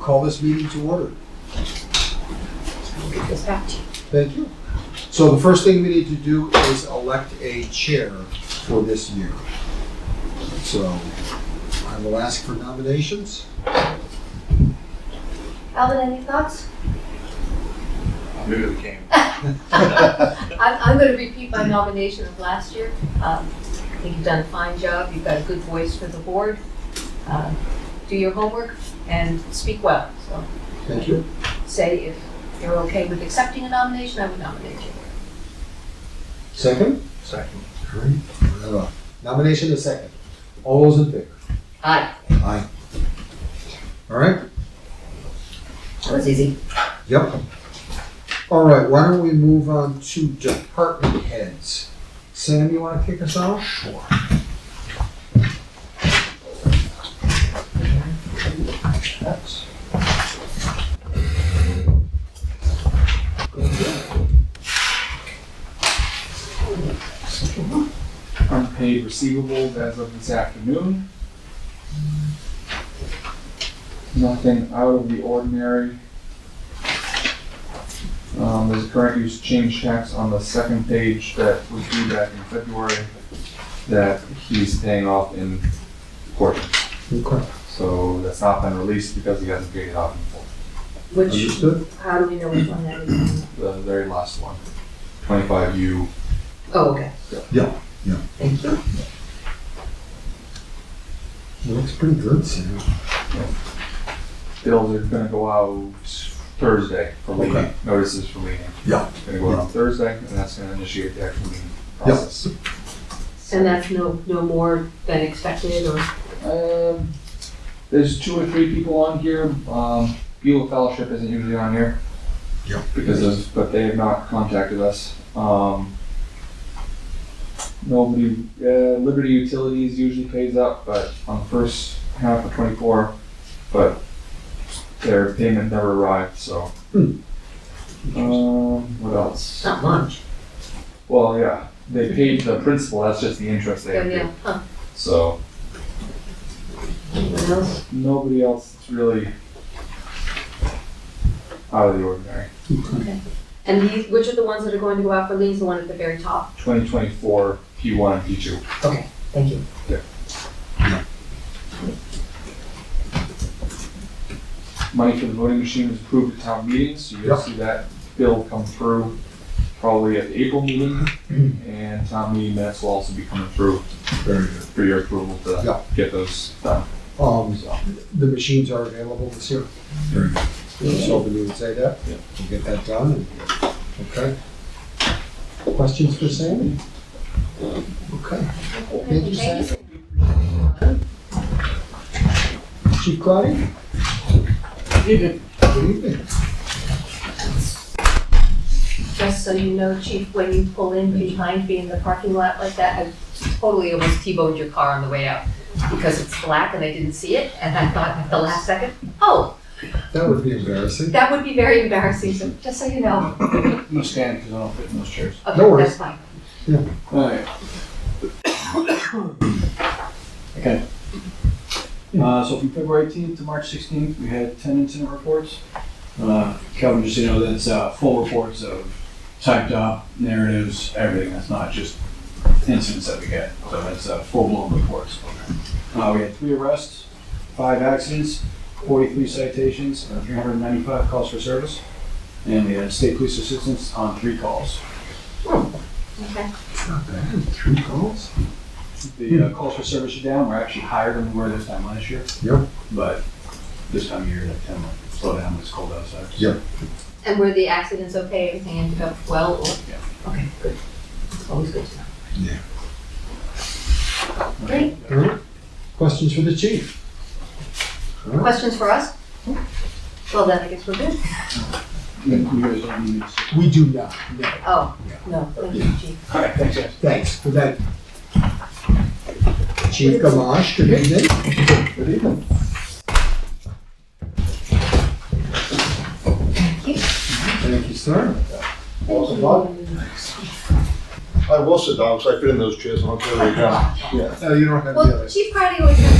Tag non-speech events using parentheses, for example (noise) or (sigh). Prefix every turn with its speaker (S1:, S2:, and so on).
S1: call this meeting to order.
S2: Get this back to you.
S1: Thank you. So the first thing we need to do is elect a chair for this year. So I will ask for nominations.
S2: Alvin, any thoughts?
S3: New to the
S2: (laughs)
S3: game.
S2: I'm, I'm gonna repeat my nomination of last year. Um, I think you've done a fine job, you've got a good voice for the board. Uh, Do your homework and speak well, so
S1: Thank you.
S2: say if you're okay with accepting a nomination, I would nominate you.
S1: Second?
S3: Second.
S1: Great. We have a Nomination is second. All those in favor?
S2: Aye.
S1: Aye. All right?
S2: That was easy.
S1: Yep. All right, why don't we move on to department heads? Sam, you want to kick us off? Sure.
S4: unpaid receivables as of this afternoon. Nothing out of the ordinary. Um, there's a current use change tax on the second page that was due back in February that he's paying off in court.
S1: Okay,
S4: So that's not been released because he hasn't paid it off in full.
S2: Which,
S1: understood.
S2: how do we know which one that is?
S4: The very last one, twenty-five U.
S2: Oh, okay.
S1: Yeah, yeah.
S2: Thank you.
S1: Looks pretty good, Sam.
S4: Bills are gonna go out Thursday for
S1: Okay.
S4: leaning, notices for leaning.
S1: Yeah.
S4: Gonna go out on Thursday, and that's gonna initiate the actual meeting
S1: Yep.
S4: process.
S2: And that's no, no more than expected or?
S4: Um, there's two or three people on here, um, Beulah Fellowship isn't usually on here.
S1: Yep.
S4: Because of, but they have not contacted us, um. Nobody, uh, Liberty Utilities usually pays up, but on the first half of twenty-four, but their payment never arrived, so.
S1: Hmm.
S4: Um, what else?
S2: Not much.
S4: Well, yeah, they paid the principal, that's just the interest they
S2: Yeah,
S4: have
S2: Oh, yeah,
S4: to,
S2: huh,
S4: so.
S2: anyone else?
S4: nobody else is really out of the ordinary.
S2: And these, which are the ones that are going to go out for liens, the one at the very top?
S4: 2024 P1 and P2.
S2: Okay, thank you.
S4: Money for the voting machine was approved at town meetings, so you'll
S1: Yep.
S4: see that bill come through probably at the April meeting,
S2: Mm-hmm.
S4: and town meeting minutes will also be coming through
S1: Very good.
S4: for your approval to
S1: Yep.
S4: get those done.
S1: Um,
S4: So,
S1: the machines are available this year. Very good. I was hoping you would say that.
S4: Yeah.
S1: We'll get that done. and- Okay. Questions for Sam? Okay. Thank you, Sam. Chief Claudia? Good evening.
S2: Just so you know, chief, when you pull in behind me in the parking lot like that, I totally almost T-boned your car on the way out because it's black and I didn't see it, and I thought at the last second, oh,
S1: That would be embarrassing.
S2: that would be very embarrassing, so just so you know.
S3: No stand because I don't fit in those chairs.
S1: No
S2: Okay,
S1: worries.
S2: that's fine.
S3: Alright. Okay. Uh, so from February eighteenth to March sixteenth, we had ten incident reports. Uh, Kelvin, just so you know, that's, uh, full reports of typed up narratives, everything. That's not just incidents that we get. So that's, uh, full-blown reports. Uh, we had three arrests, five accidents, forty-three citations, three hundred and ninety-five calls for service. And we had state police assistance on three calls.
S2: Okay,
S1: It's not bad. Three calls?
S3: The uh, calls for service are down, we're actually higher than we were this time last year.
S1: Yep.
S3: But this time of year, that kind of slow down, it's cold outside.
S1: Yep.
S2: and were the accidents okay, everything ended up well, or?
S3: Yeah.
S2: Okay, good. It's always good to know.
S1: Yeah.
S2: Great,
S1: All right. Questions for the chief? All right.
S2: questions for us? Well, then I guess we're good.
S3: You guys don't need me to.
S1: We do not. No.
S2: Oh, no, thank you, chief.
S3: All right, thanks, guys.
S1: Thanks for that. Chief Gamache, good evening.
S4: Good evening.
S2: Thank you.
S1: Thank you, sir.
S5: Welcome, Bob. I will sit down, because I fit in those chairs, and I'll tell you down.
S2: (laughs)
S1: No, you don't have the
S2: Well,
S1: other.
S2: Chief Cardi always comes